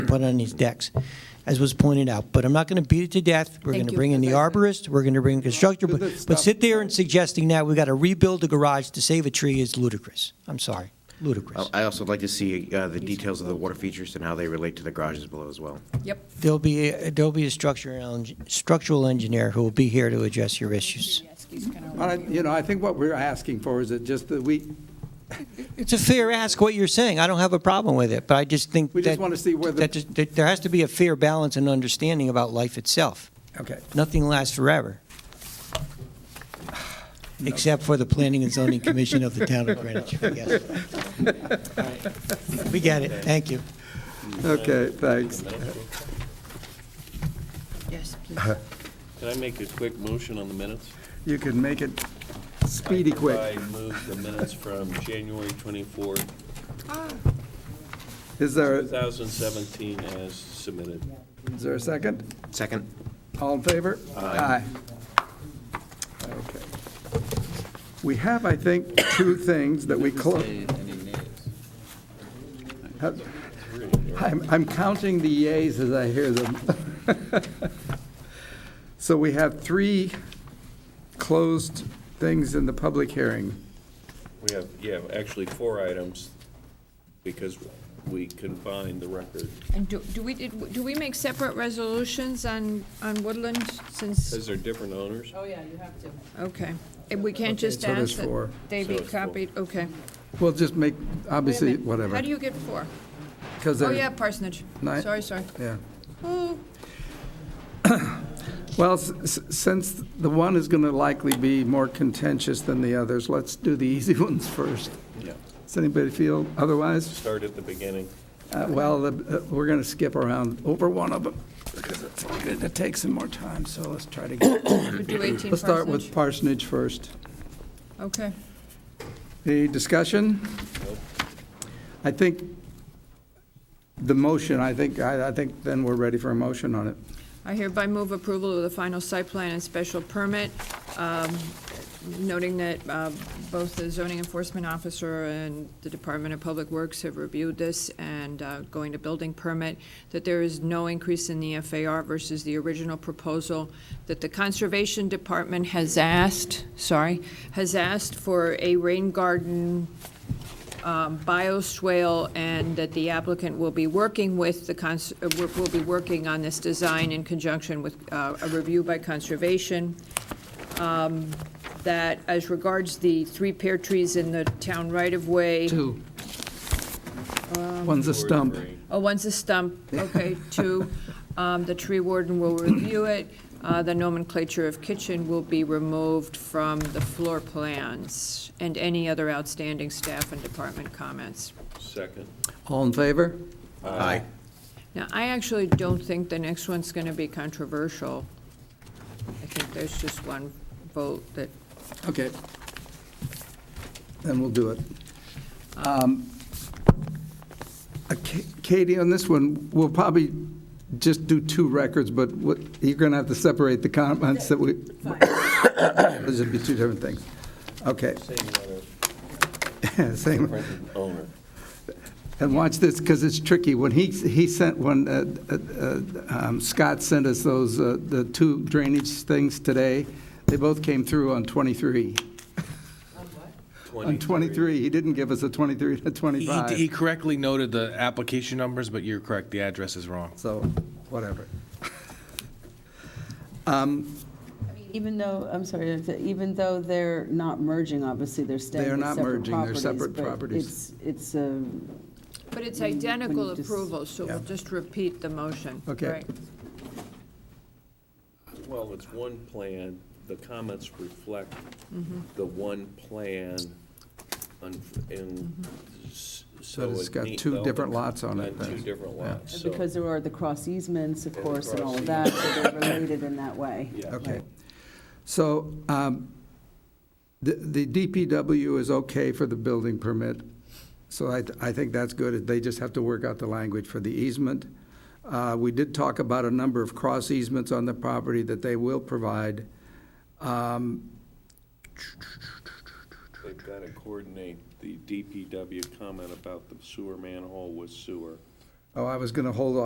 put on these decks, as was pointed out. But I'm not going to beat it to death. We're Thank going to you. bring in the arborist, we're going to bring in constructor, but Th- th- but stop. sit there and suggesting now we got to rebuild the garage to save a tree is ludicrous. I'm sorry, ludicrous. I also would like to see uh, the details of the water features and how they relate to the garages below as well. Yep. There'll be, there'll be a structural, eng- structural engineer who will be here to address your issues. All right, you know, I think what we're asking for is that just that we, It's a fair ask what you're saying. I don't have a problem with it, but I just think We just that- wanna see where the- that just- that there has to be a fair balance and understanding about life itself. okay. Nothing lasts forever. Except for the Planning and Zoning Commission of the Town of Greenwich, I guess. All right. We get it. Thank you. Okay, thanks. Yes, please. Can I make a quick motion on the minutes? You can make it speedy I quick. move the minutes from January 24th, Is there, is 2017 as submitted. there a second? Second? All in favor? Aye. Okay. We have, I think, two things that we close. I'm, I'm counting the yays as I hear them. So we have three closed things in the public hearing. We have, yeah, actually four items because we combined the record. And do, do we, did- do we make separate resolutions on, on Woodland since, Because they're different owners. Oh, yeah, you have to. okay. And we can't just so there's ask that four. they be So it's four. copied, okay. We'll just make, Wait a obviously, minute. whatever. How do you get four? 'cause Oh, they're- yeah, parsonage. Nine. Sorry, sorry. Yeah. Oh, Well, s- s- since the one is going to likely be more contentious than the others, let's do the easy ones first. Yeah. Does anybody feel otherwise? Start at the beginning. Uh, Well, the- uh, we're going to skip around over one of them because it's going to take some more time, so let's try to get, we do 18 let's start with parsonage. parsonage first. Okay. Any discussion? I think the motion, I think, I I think then we're ready for a motion on it. I hereby move approval of the final site plan and special permit, um, noting that uh, both the zoning enforcement officer and the Department of Public Works have reviewed this and uh, going to building permit, that there is no increase in the FAR versus the original proposal, that the Conservation Department has asked, sorry, has asked for a rain garden um, bioswale, and that the applicant will be working with the, cons- uh, will will be working on this design in conjunction with uh, a review by Conservation. Um, That as regards the three pear trees in the town right-of-way. Two. One's a stump. Oh, one's a stump, okay, two, um, the tree warden will review it. Uh, the nomenclature of kitchen will be removed from the floor plans and any other outstanding staff and department comments. Second. All in favor? Aye. Now, I actually don't think the next one's going to be controversial. I think there's just one vote that, Okay. Then we'll do it. Um, uh, Ka- Katie, on this one, we'll probably just do two records, but what, you're going to have to separate the comments that we, those would be two different things. Okay, Same letter, same. different owner. And watch this, because it's tricky. When he, he sent one, uh, uh, um, Scott sent us those, uh, the two drainage things today. They both came through on 23. On 23, he didn't give us a 23 to He- He, he 25, correctly noted the application numbers, but you're correct, the address is wrong. so whatever. Even though, I'm sorry, it's- even though they're not merging, obviously, they're staying They are as not separate merging, they're properties, separate but properties. It's, uh, it's a but it's identical When you just- approval, so we'll Yeah. just repeat the motion. Okay. right? Well, it's one plan, the comments reflect the one plan, un- and s- so. it's it got need- two they'll- different lots on it, and Two then. different Yeah. lots, so- because there are the cross easements, of the course, and all of cross that, so they're related in that way. Yeah. Okay. So um, the the DPW is okay for the building permit, so I I think that's good. They just have to work out the language for the easement. Uh, We did talk about a number of cross easements on the property that they will provide. They've got to coordinate the DPW comment about the sewer manhole with sewer. Oh, I was going to hold